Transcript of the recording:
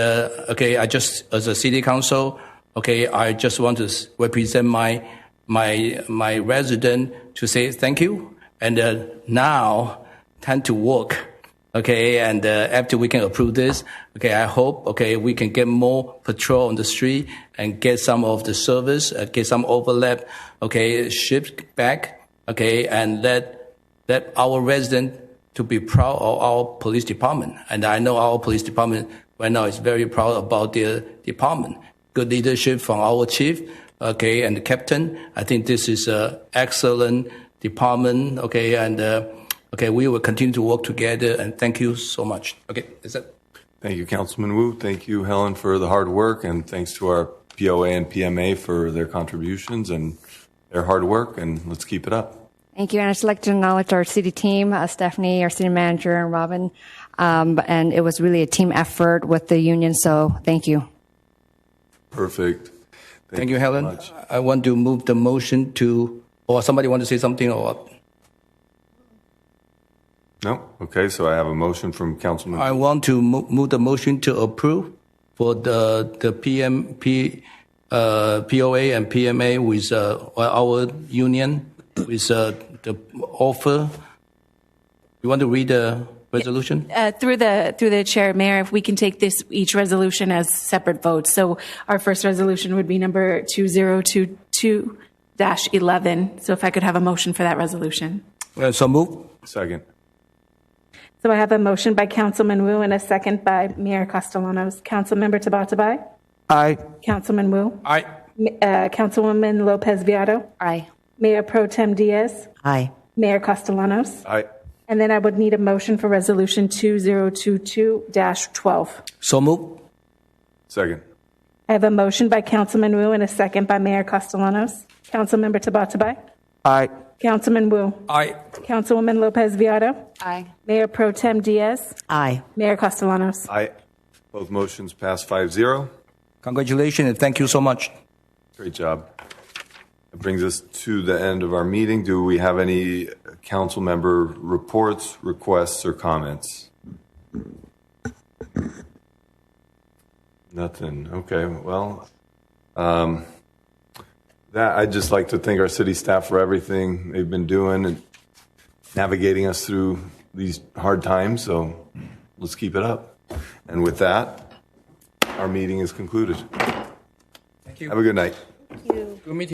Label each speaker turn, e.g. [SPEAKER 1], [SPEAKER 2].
[SPEAKER 1] uh, okay, I just, as a city council, okay, I just want to s- represent my, my, my resident to say thank you. And uh, now, time to work. Okay, and uh, after we can approve this, okay, I hope, okay, we can get more patrol on the street and get some of the service, uh, get some overlap, okay, shift back, okay, and let that our resident to be proud of our police department. And I know our police department right now is very proud about their department. Good leadership from our chief, okay, and the captain. I think this is a excellent department, okay, and uh, okay, we will continue to work together. And thank you so much. Okay, is that?
[SPEAKER 2] Thank you, Councilman Wu. Thank you, Helen, for the hard work, and thanks to our POA and PMA for their contributions and their hard work, and let's keep it up.
[SPEAKER 3] Thank you. And I'd just like to acknowledge our city team, uh, Stephanie, our city manager, and Robin. Um, and it was really a team effort with the union. So thank you.
[SPEAKER 2] Perfect.
[SPEAKER 1] Thank you, Helen. I want to move the motion to, or somebody want to say something or?
[SPEAKER 2] No? Okay, so I have a motion from Councilman,
[SPEAKER 1] I want to mo- move the motion to approve for the, the PM, P, uh, POA and PMA with, uh, our union, with, uh, the offer. You want to read the resolution?
[SPEAKER 4] Uh, Through the, through the chair, Mayor, if we can take this, each resolution as separate votes. So our first resolution would be number 2022-11. So if I could have a motion for that resolution.
[SPEAKER 1] Uh, So move.
[SPEAKER 2] second.
[SPEAKER 4] So I have a motion by Councilman Wu and a second by Mayor Costellanos. Councilmember Tabatabai?
[SPEAKER 5] Aye.
[SPEAKER 4] Councilman Wu?
[SPEAKER 1] Aye.
[SPEAKER 4] Uh, Councilwoman Lopez Viado?
[SPEAKER 3] Aye.
[SPEAKER 4] Mayor Pro Tem Diaz?
[SPEAKER 5] Aye.
[SPEAKER 4] Mayor Costellanos?
[SPEAKER 2] Aye.
[SPEAKER 4] And then I would need a motion for Resolution 2022-12.
[SPEAKER 1] So move.
[SPEAKER 2] Second.
[SPEAKER 4] I have a motion by Councilman Wu and a second by Mayor Costellanos. Councilmember Tabatabai?
[SPEAKER 5] Aye.
[SPEAKER 4] Councilman Wu?
[SPEAKER 1] Aye.
[SPEAKER 4] Councilwoman Lopez Viado?
[SPEAKER 3] Aye.
[SPEAKER 4] Mayor Pro Tem Diaz?
[SPEAKER 5] Aye.
[SPEAKER 4] Mayor Costellanos?
[SPEAKER 2] Aye. Both motions pass five zero.
[SPEAKER 1] Congratulations and thank you so much.
[SPEAKER 2] Great job. That brings us to the end of our meeting. Do we have any council member reports, requests, or comments? Nothing. Okay, well, um, that, I'd just like to thank our city staff for everything they've been doing and navigating us through these hard times, so let's keep it up. And with that, our meeting is concluded. Thank you. Have a good night.
[SPEAKER 1] Good meeting.